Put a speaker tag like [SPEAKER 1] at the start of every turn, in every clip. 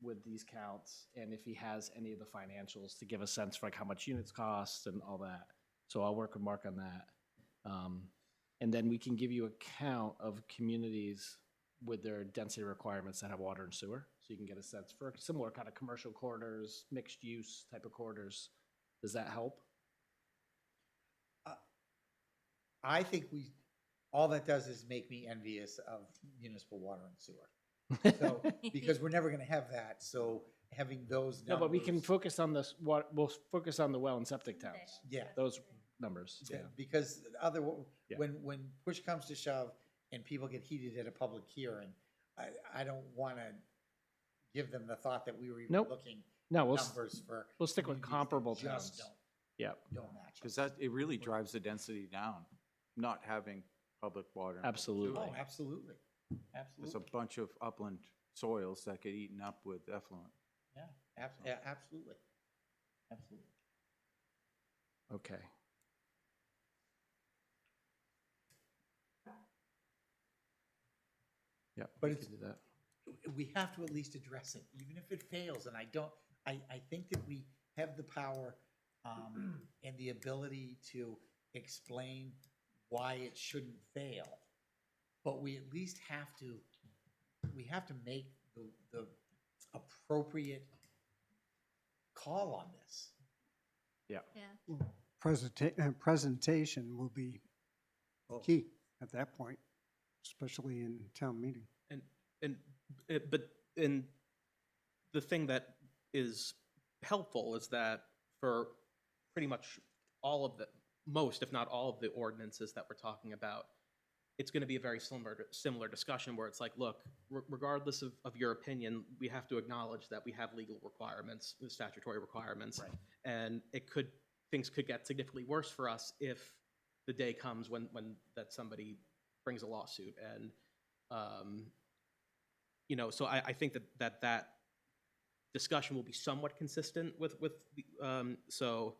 [SPEAKER 1] with these counts and if he has any of the financials to give a sense for like how much units cost and all that. So I'll work with Mark on that. Um, and then we can give you a count of communities with their density requirements that have water and sewer. So you can get a sense for similar kind of commercial corridors, mixed use type of corridors. Does that help?
[SPEAKER 2] I think we, all that does is make me envious of municipal water and sewer. So, because we're never gonna have that, so having those numbers.
[SPEAKER 1] No, but we can focus on this, what, we'll focus on the well and septic towns,
[SPEAKER 2] Yeah.
[SPEAKER 1] those numbers, yeah.
[SPEAKER 2] Yeah, Because other,
[SPEAKER 1] Yeah.
[SPEAKER 2] when, when push comes to shove and people get heated at a public hearing, I, I don't wanna give them the thought that we were even
[SPEAKER 1] Nope.
[SPEAKER 2] looking
[SPEAKER 1] No, we'll, s-
[SPEAKER 2] numbers for.
[SPEAKER 1] we'll stick with
[SPEAKER 2] communities that
[SPEAKER 1] comparable
[SPEAKER 2] just
[SPEAKER 1] towns.
[SPEAKER 2] don't-
[SPEAKER 1] Yeah.
[SPEAKER 2] Don't match.
[SPEAKER 3] Because
[SPEAKER 2] us.
[SPEAKER 3] that, it really drives the density down, not having public water. and public sewer.
[SPEAKER 1] Absolutely.
[SPEAKER 2] Oh, absolutely,
[SPEAKER 3] There's a
[SPEAKER 2] absolutely,
[SPEAKER 3] bunch of upland soils that get eaten up with effluent.
[SPEAKER 2] yeah, ab- yeah, absolutely, absolutely.
[SPEAKER 1] Okay. Yeah,
[SPEAKER 2] But
[SPEAKER 1] we
[SPEAKER 2] it's-
[SPEAKER 1] can do that.
[SPEAKER 2] we have to at least address it, even if it fails, and I don't, I, I think that we have the power um, and the ability to explain why it shouldn't fail. But we at least have to, we have to make the, the appropriate call on this.
[SPEAKER 4] presenta- uh, presentation will be key at that point, especially in town meeting.
[SPEAKER 5] and uh, but and the thing that is helpful is that for pretty much all of the most if not all of the ordinances that we're talking about it's going to be a very similar similar discussion where it's like look re- regardless of, of your opinion we have to acknowledge that we have legal requirements statutory requirements
[SPEAKER 2] Right.
[SPEAKER 5] and it could things could get significantly worse for us if the day comes when when that somebody brings a lawsuit and um, you know, so I, I think that, that that discussion will be somewhat consistent with, with, the- um, so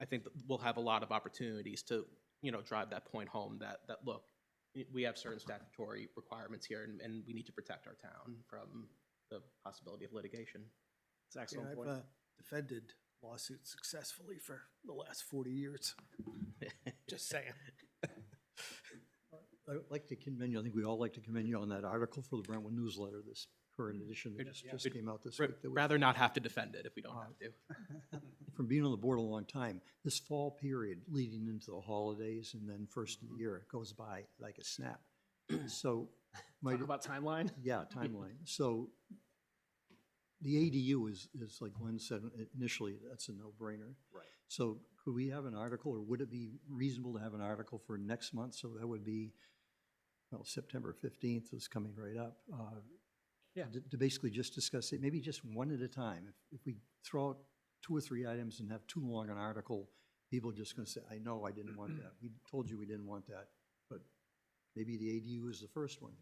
[SPEAKER 5] I think that we'll have a lot of opportunities to, you know, drive that point home that, that, look, we- we have certain statutory requirements here and, and we need to protect our town from the possibility of litigation.
[SPEAKER 1] It's an
[SPEAKER 6] Yeah,
[SPEAKER 1] excellent
[SPEAKER 6] I've
[SPEAKER 1] point.
[SPEAKER 6] uh, defended lawsuits successfully for the last 40 years. Just saying.
[SPEAKER 7] I would like to commend you, I think we all like to commend you on that article for the Brentwood newsletter, this current edition that
[SPEAKER 5] Mm-hmm. It-
[SPEAKER 7] just,
[SPEAKER 5] yeah.
[SPEAKER 7] just
[SPEAKER 5] It-
[SPEAKER 7] came out this
[SPEAKER 5] Ra-
[SPEAKER 7] week. that was- Uh-huh.
[SPEAKER 5] Rather not have to defend it if we don't have to.
[SPEAKER 7] From being on the board a long time, this fall period leading into the holidays and then first of
[SPEAKER 5] Mm-hmm.
[SPEAKER 7] the year, it goes by like a snap. So, my,
[SPEAKER 1] Talk about timeline?
[SPEAKER 7] yeah, timeline. So the ADU is, is like Glenn said initially, that's a no-brainer. Right. So could we have an article, or would it be reasonable to have an article for next month? So that would be, well, September fifteenth is coming right up. uh,
[SPEAKER 1] Yeah.
[SPEAKER 7] To to basically just discuss it, maybe just one at a time. If- If we throw out two or three items and have too long an article, people are just gonna say, I know I didn't want that. We told you we didn't want that, but maybe the ADU is the first one.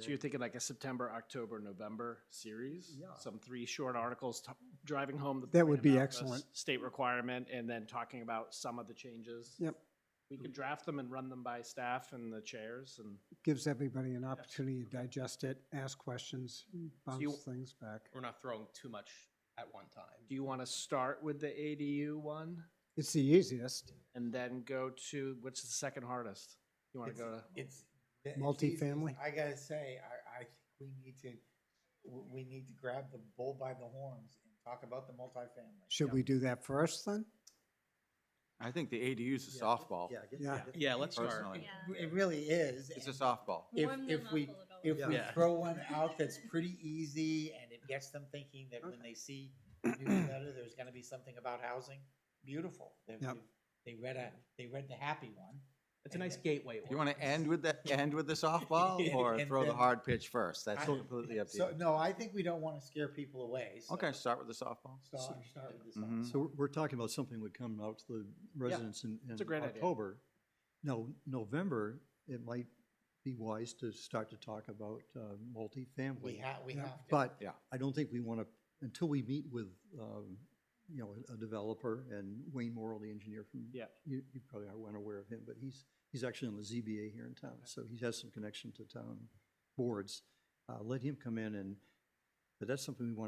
[SPEAKER 1] So you're thinking like a September, October, November series?
[SPEAKER 7] Yeah.
[SPEAKER 1] Some three short articles, t- driving home the.
[SPEAKER 4] That
[SPEAKER 1] point
[SPEAKER 4] would be
[SPEAKER 1] about the
[SPEAKER 4] excellent.
[SPEAKER 1] s- State requirement and then talking about some of the changes.
[SPEAKER 4] Yep.
[SPEAKER 1] We could draft them and run them by staff and the chairs and,
[SPEAKER 4] Gives everybody an opportunity to digest it, ask questions,
[SPEAKER 1] you-
[SPEAKER 4] bounce things back.
[SPEAKER 5] We're not throwing too much at one time.
[SPEAKER 1] do you want to start with the ADU one?
[SPEAKER 4] It's the easiest,
[SPEAKER 1] And then go to, what's the second hardest? You want to go to?
[SPEAKER 2] It's. it's these-
[SPEAKER 4] Multifamily?
[SPEAKER 2] I gotta say, I, I think we need to, we, we need to grab the bull by the horns and talk about the multifamily.
[SPEAKER 4] should we do that first then?
[SPEAKER 3] I think the ADUs is
[SPEAKER 7] Yeah.
[SPEAKER 3] softball.
[SPEAKER 7] Yeah. get-
[SPEAKER 4] Yeah.
[SPEAKER 7] get-
[SPEAKER 5] Yeah, let's start.
[SPEAKER 3] Personally,
[SPEAKER 8] Yeah.
[SPEAKER 2] It really is.
[SPEAKER 3] it's a
[SPEAKER 2] and-
[SPEAKER 3] softball.
[SPEAKER 2] If-
[SPEAKER 8] Warm
[SPEAKER 2] if
[SPEAKER 8] them up a
[SPEAKER 2] we-
[SPEAKER 8] little.
[SPEAKER 2] if we
[SPEAKER 5] Yeah.
[SPEAKER 2] throw one out that's pretty easy and it gets them thinking that when they see the newsletter, there's gonna be something about housing, beautiful. They,
[SPEAKER 4] Yep.
[SPEAKER 2] they read a, they read the happy one.
[SPEAKER 5] It's a nice gateway.
[SPEAKER 3] You want to
[SPEAKER 5] ordinance.
[SPEAKER 3] end with the, end with the softball or
[SPEAKER 2] And
[SPEAKER 3] throw the
[SPEAKER 2] then-
[SPEAKER 3] hard pitch first? That's
[SPEAKER 2] I-
[SPEAKER 3] completely up to
[SPEAKER 2] So,
[SPEAKER 3] you.
[SPEAKER 2] no, I think we don't wanna scare people away, so.
[SPEAKER 3] Okay, start with the softball.
[SPEAKER 2] Start, start with this.
[SPEAKER 3] Mhm.
[SPEAKER 7] So we're- we're talking about something would come out to the residents in, in
[SPEAKER 1] a great idea.
[SPEAKER 7] October. No, November, it might be wise to start to talk about uh, multifamily.
[SPEAKER 2] We have, we have to.
[SPEAKER 7] But
[SPEAKER 3] Yeah.
[SPEAKER 7] I don't think we want to, until we meet with, um, you know, a developer and Wayne Morrell, the engineer from.
[SPEAKER 1] Yeah.
[SPEAKER 7] You, you probably aren't aware of him, but he's, he's actually on the ZBA here in town, so he has some connection to town boards. Uh, Let him come in and, but that's something we want